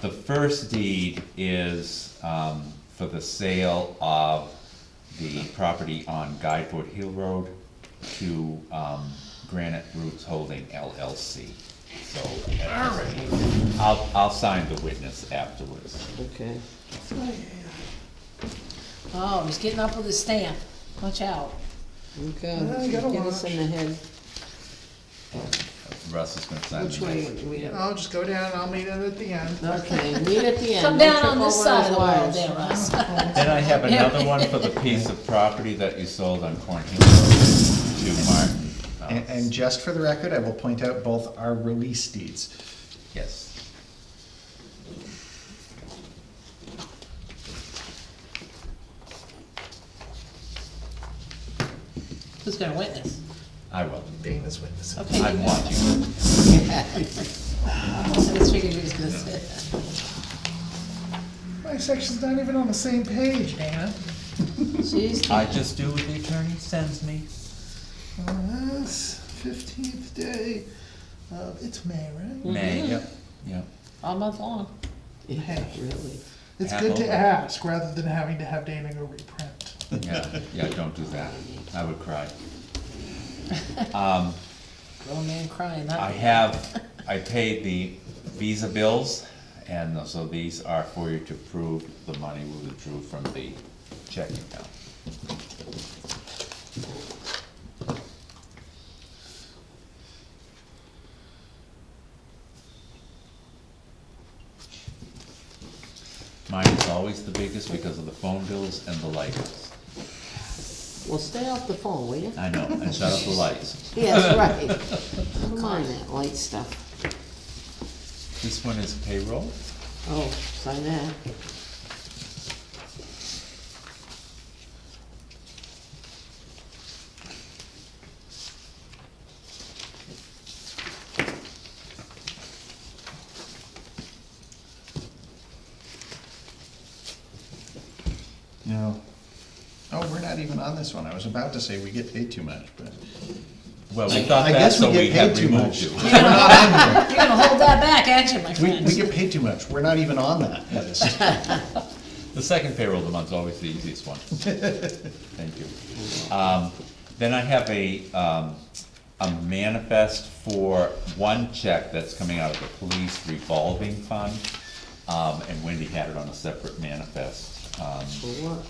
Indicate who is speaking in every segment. Speaker 1: the first deed is, um, for the sale of the property on Guideford Hill Road to, um, Granite Roots Holding LLC. So, uh, I'll, I'll sign the witness afterwards.
Speaker 2: Okay.
Speaker 3: Oh, he's getting up with his stamp. Watch out.
Speaker 1: Uh,
Speaker 2: Okay,
Speaker 4: you gotta
Speaker 2: get us in the head.
Speaker 1: Russ is gonna sign
Speaker 2: Which
Speaker 1: the
Speaker 2: way?
Speaker 1: next.
Speaker 2: we-
Speaker 4: I'll just go down, I'll meet it at the end.
Speaker 2: Okay, meet at the end.
Speaker 3: Come
Speaker 2: Don't
Speaker 3: down
Speaker 2: trip
Speaker 3: on this
Speaker 2: over those
Speaker 3: side of the wall
Speaker 2: wires.
Speaker 3: there, Russ.
Speaker 1: Then I have another one for the piece of property that you sold on Cornhill Road to Martin. Uh,
Speaker 5: And, and just for the record, I will point out both are release deeds.
Speaker 1: Yes.
Speaker 3: Who's gonna witness?
Speaker 1: I will.
Speaker 5: Dana's witness.
Speaker 3: Okay.
Speaker 1: I'm watching.
Speaker 3: I just figured he was gonna say that.
Speaker 4: My section's not even on the same page, Dana.
Speaker 3: Jeez.
Speaker 1: I just do what the attorney sends me.
Speaker 4: On this fifteenth day of, it's May, right?
Speaker 1: May. Yep. Yep.
Speaker 3: All month long.
Speaker 2: Yeah, really.
Speaker 4: It's
Speaker 1: Half
Speaker 4: good to
Speaker 1: over.
Speaker 4: ask rather than having to have Dana go reprint.
Speaker 1: Yeah, yeah, don't do that. I would cry.
Speaker 3: Grown man crying,
Speaker 1: I
Speaker 3: huh?
Speaker 1: have, I paid the Visa bills, and so these are for you to prove the money we withdrew from the checking account. Mine is always the biggest because of the phone bills and the lights.
Speaker 2: Well, stay off the phone, will you?
Speaker 1: I know, and shut off the lights.
Speaker 2: Yes, right. Never mind that light stuff.
Speaker 1: This one is payroll?
Speaker 2: Oh, sign that.
Speaker 5: No. Oh, we're not even on this one. I was about to say we get paid too much, but.
Speaker 1: Well, we
Speaker 5: I-
Speaker 1: thought
Speaker 5: I
Speaker 1: that,
Speaker 5: guess
Speaker 1: so we
Speaker 5: get paid
Speaker 1: had
Speaker 5: too
Speaker 1: removed
Speaker 5: much.
Speaker 1: you.
Speaker 5: We're not on
Speaker 3: You're gonna hold that back, aren't you, my
Speaker 5: there. We, we
Speaker 3: friend?
Speaker 5: get paid too much. We're not even on that list.
Speaker 1: The second payroll of the month's always the easiest one. Thank you. Um, Then I have a, um, a manifest for one check that's coming out of the police revolving fund. Um, and Wendy had it on a separate manifest, um,
Speaker 2: For what?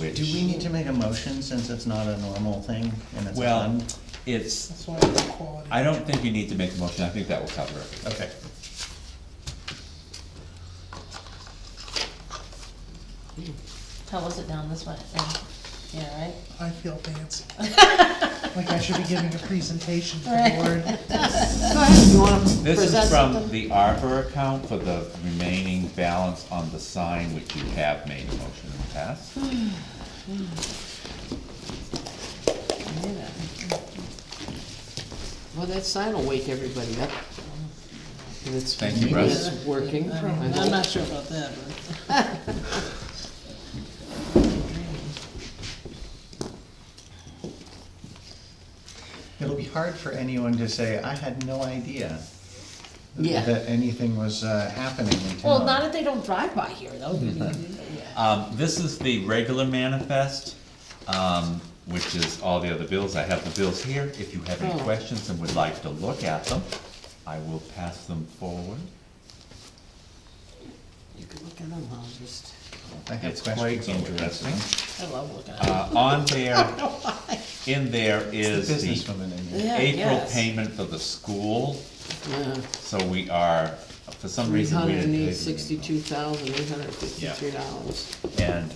Speaker 1: which.
Speaker 5: Do we need to make a motion since it's not a normal thing and it's
Speaker 1: Well,
Speaker 5: done?
Speaker 1: it's,
Speaker 4: That's why it's quality.
Speaker 1: I don't think you need to make a motion, I think that will cover it.
Speaker 5: Okay.
Speaker 3: How was it down this way? Yeah, right?
Speaker 4: I feel fancy. Like I should be giving a presentation to the
Speaker 3: Right.
Speaker 4: board.
Speaker 2: Go ahead, you wanna
Speaker 1: This
Speaker 2: present
Speaker 1: is from
Speaker 2: something?
Speaker 1: the Arbor account for the remaining balance on the sign, which you have made a motion in the past.
Speaker 3: Yeah.
Speaker 2: Well, that sign will wake everybody up. And it's,
Speaker 1: Thank you,
Speaker 2: maybe
Speaker 1: Russ.
Speaker 2: it's working.
Speaker 3: I don't
Speaker 2: I
Speaker 3: know. I'm
Speaker 2: hope.
Speaker 3: not sure about that, but.
Speaker 5: It'll be hard for anyone to say, I had no idea
Speaker 2: Yeah.
Speaker 5: that anything was uh, happening in town.
Speaker 3: Well, not if they don't drive by here, though. Yeah.
Speaker 1: Um, this is the regular manifest, um, which is all the other bills. I have the bills here. If you have any
Speaker 2: Oh.
Speaker 1: questions and would like to look at them, I will pass them forward.
Speaker 2: You can look at them, I'll just,
Speaker 5: I have
Speaker 1: It's quite
Speaker 5: questions on what that's
Speaker 1: interesting.
Speaker 3: I love looking at it.
Speaker 1: Uh, on there,
Speaker 2: Oh,
Speaker 1: in there
Speaker 5: It's
Speaker 1: is
Speaker 5: the business
Speaker 1: the
Speaker 5: woman in here.
Speaker 3: Yeah,
Speaker 1: April
Speaker 3: yes.
Speaker 1: payment for the school,
Speaker 2: yeah.
Speaker 1: so we are, for some
Speaker 2: Three
Speaker 1: reason, we
Speaker 2: hundred
Speaker 1: didn't.
Speaker 2: and
Speaker 1: pay
Speaker 2: eight,
Speaker 1: the-
Speaker 2: sixty-two thousand, eight hundred and fifty-three dollars.
Speaker 1: And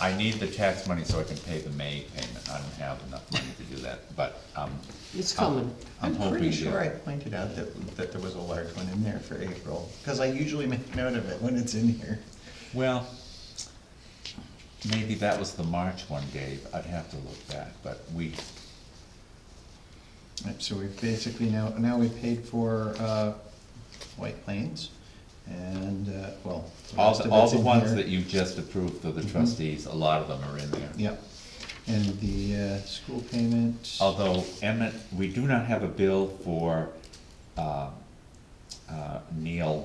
Speaker 1: I need the tax money so I can pay the May payment. I don't have enough money to do that, but, um,
Speaker 2: It's coming.
Speaker 1: I'm
Speaker 5: I'm
Speaker 1: hoping to.
Speaker 5: pretty sure I pointed out that, that there was a large one in there for April, because I usually make note of it when it's in here.
Speaker 1: Well, maybe that was the March one, Dave, I'd have to look back, but we,
Speaker 5: Right, So we've basically now, now we paid for, uh, White Plains, and, uh, well. the
Speaker 1: all,
Speaker 5: rest
Speaker 1: the-
Speaker 5: of
Speaker 1: all
Speaker 5: it's
Speaker 1: the
Speaker 5: in
Speaker 1: ones
Speaker 5: here. Mm-hmm.
Speaker 1: that you just approved for the trustees, a lot of them are in there.
Speaker 5: Yep, and the, uh, school payment.
Speaker 1: Although Emmett, we do not have a bill for, uh, uh, Neil